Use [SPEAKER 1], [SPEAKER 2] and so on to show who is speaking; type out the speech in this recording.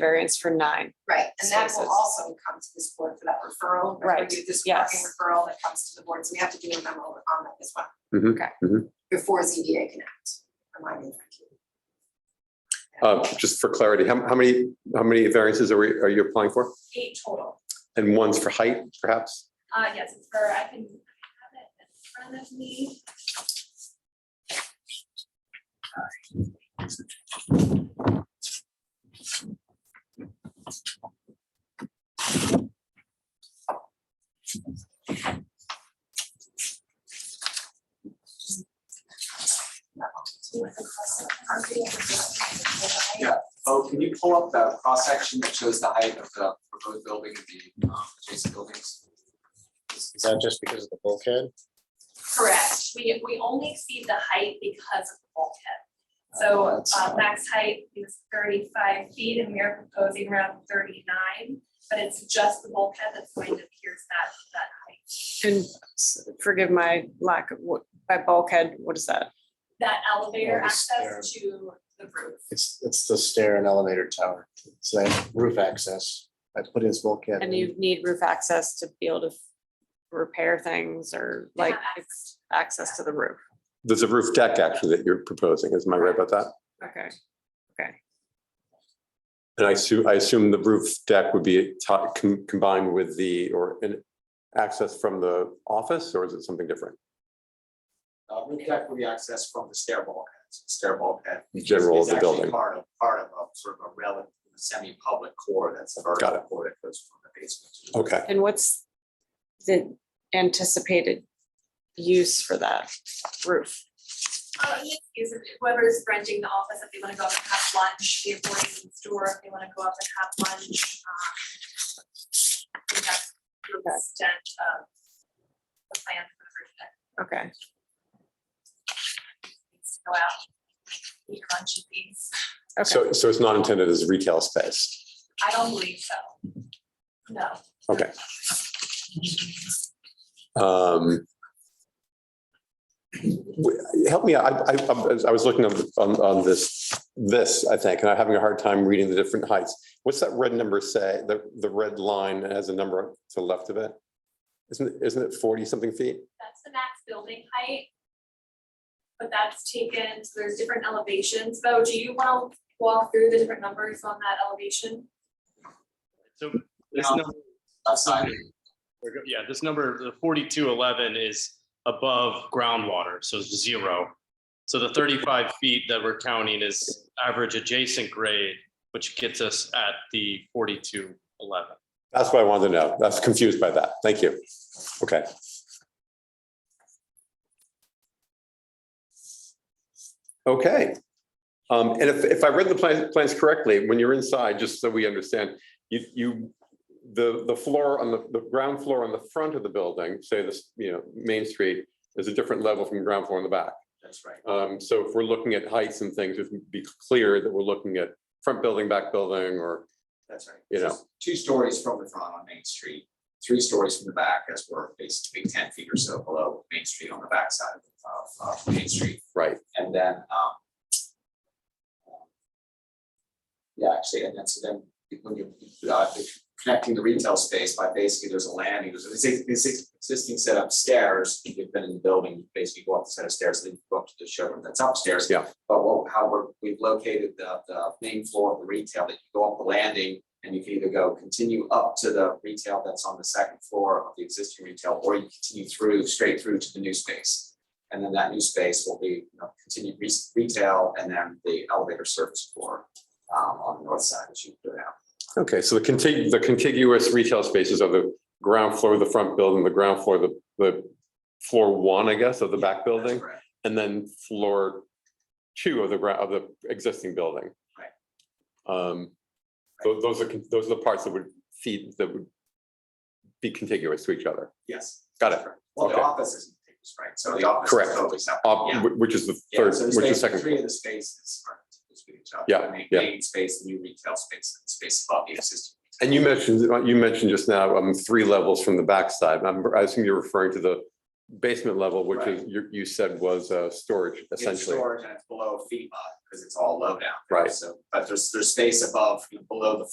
[SPEAKER 1] variance for nine.
[SPEAKER 2] Right, and that will
[SPEAKER 1] Services.
[SPEAKER 2] also come to this board for that referral. Remember,
[SPEAKER 1] Right,
[SPEAKER 2] we do This
[SPEAKER 1] yes.
[SPEAKER 2] parking referral that comes to the board, so we have to do a memo on that as well.
[SPEAKER 3] Mhm,
[SPEAKER 1] Okay.
[SPEAKER 3] mhm.
[SPEAKER 2] Before ZBA can act, remind me.
[SPEAKER 3] Uh, just for clarity, how, how many, how many variances are we, are you applying for?
[SPEAKER 4] eight total.
[SPEAKER 3] And one's for height, perhaps?
[SPEAKER 4] Uh, yes, it's for, I can have it in front of me.
[SPEAKER 5] Oh, can you pull up that cross section that shows the height of the proposed building and the um, adjacent buildings?
[SPEAKER 6] Is that just because of the bulkhead?
[SPEAKER 4] Correct, we, we only see the height because of the bulkhead. So,
[SPEAKER 5] That's
[SPEAKER 4] uh,
[SPEAKER 5] fine.
[SPEAKER 4] max height is thirty-five feet and we are proposing around thirty-nine, but it's just the bulkhead that's going to pierce that, that height.
[SPEAKER 1] And s- forgive my lack of, what, by bulkhead, what is that?
[SPEAKER 4] That elevator
[SPEAKER 6] Yeah, the
[SPEAKER 4] access to the roof.
[SPEAKER 6] It's, it's the stair and elevator tower. It's that roof access. I put his bulkhead
[SPEAKER 1] And
[SPEAKER 6] in.
[SPEAKER 1] you need roof access to be able to f- repair things or
[SPEAKER 4] They have
[SPEAKER 1] like
[SPEAKER 4] access.
[SPEAKER 1] access to the roof.
[SPEAKER 3] There's a roof deck actually that you're proposing, is my right about that?
[SPEAKER 1] Okay,
[SPEAKER 3] And I assume, I assume the roof deck would be to- com- combined with the, or an access from the office, or is it something different?
[SPEAKER 5] Uh, roof deck will be accessed from the stair bulkheads, stair bulkhead.
[SPEAKER 3] The General of
[SPEAKER 5] is
[SPEAKER 3] the
[SPEAKER 5] actually
[SPEAKER 3] building.
[SPEAKER 5] Part of, part of a sort of a relative semi-public core that's a
[SPEAKER 3] Got
[SPEAKER 5] vertical
[SPEAKER 3] it.
[SPEAKER 5] core that goes from the basement. to the
[SPEAKER 3] Okay,
[SPEAKER 1] and what's the anticipated use for that roof?
[SPEAKER 4] Uh, yes, is it- whoever's renting the office, if they wanna go up and have lunch, the employees in the store, if they wanna go up and have lunch, um. I think That's the
[SPEAKER 1] Okay.
[SPEAKER 4] extent of the plan for the roof that
[SPEAKER 1] Okay,
[SPEAKER 4] needs to go out. Eat your lunch and things,
[SPEAKER 1] okay,
[SPEAKER 3] so, so it's not intended as retail space.
[SPEAKER 4] I don't believe so. No,
[SPEAKER 3] Um, w- Help me, out. I, I, I'm- I was looking on, on, on this, this, I think, and I'm having a hard time reading the different heights. What's that red number say? The, the red line that has a number to the left of it? Isn't, it- isn't it forty something feet?
[SPEAKER 4] that's the max building height. But that's taken, so there's different elevations, though, do you wanna walk through the different numbers on that elevation?
[SPEAKER 7] So this
[SPEAKER 5] Now,
[SPEAKER 7] number,
[SPEAKER 5] Left side,
[SPEAKER 7] we're go- yeah, this number, the forty-two eleven is above groundwater, so it's zero. So the thirty-five feet that we're counting is average adjacent grade, which gets us at the forty-two eleven.
[SPEAKER 3] That's what I wanted to know. I was confused by that. Thank you. Okay. Okay. Um, and if, if I read the plan- plans correctly, when you're inside, just so we understand, you, you, the, the floor on the, the ground floor on the front of the building, say this, you know, Main Street, is a different level from the ground floor in the back.
[SPEAKER 5] that's right.
[SPEAKER 3] Um, so if we're looking at heights and things, it would be clear that we're looking at front building, back building, or,
[SPEAKER 5] That's right.
[SPEAKER 3] You know.
[SPEAKER 5] Just Two stories from the front on Main Street, three stories from the back as we're basically ten feet or so below Main Street on the backside of, of Main Street.
[SPEAKER 3] right?
[SPEAKER 5] And then, um. Yeah, actually, and then so then when you're uh, connecting the retail space by basically there's a landing, there's this existing set of stairs. If you've been in the building, you basically go up the set of stairs, then you go up to the showroom that's upstairs.
[SPEAKER 3] Yeah.
[SPEAKER 5] But what- how we're, we've located the the main floor of the retail that you go up the landing. And you can either go continue up to the retail that's on the second floor of the existing retail, or you continue through, straight through to the new space. And then that new space will be, you know, continued re- retail and then the elevator service floor um, on the north side, as you go down.
[SPEAKER 3] Okay, so the contiguous, the contiguous retail spaces are the ground floor of the front building, the ground floor, of the, the floor one, I guess, of the back
[SPEAKER 5] That's
[SPEAKER 3] building,
[SPEAKER 5] correct.
[SPEAKER 3] and then floor two of the, gra- of the existing building.
[SPEAKER 5] Right.
[SPEAKER 3] Um, tho- those are, con- those are the parts that would feed, that would be contiguous to each other,
[SPEAKER 5] Yes.
[SPEAKER 3] Got it.
[SPEAKER 5] that's correct. Well, the
[SPEAKER 3] Okay.
[SPEAKER 5] office isn't, contiguous, right, so the office
[SPEAKER 3] Correct.
[SPEAKER 5] is totally separate.
[SPEAKER 3] Op-
[SPEAKER 5] Yeah.
[SPEAKER 3] whi- which is the
[SPEAKER 5] Yeah,
[SPEAKER 3] third,
[SPEAKER 5] so there's
[SPEAKER 3] which is
[SPEAKER 5] basically
[SPEAKER 3] second.
[SPEAKER 5] Three
[SPEAKER 3] floor.
[SPEAKER 5] of the spaces are contiguous with each other.
[SPEAKER 3] Yeah,
[SPEAKER 5] The main-
[SPEAKER 3] yeah.
[SPEAKER 5] Main space, the new retail space, and space above the existing.
[SPEAKER 3] And you mentioned, you mentioned just now, um, three levels from the backside. I'm, I assume you're referring to the basement level, which is, you, you said was, uh, storage
[SPEAKER 5] It's
[SPEAKER 3] essentially.
[SPEAKER 5] Storage and it's below FEMA, because it's all low down.
[SPEAKER 3] Right.
[SPEAKER 5] So, but there's, there's space above, you know, below the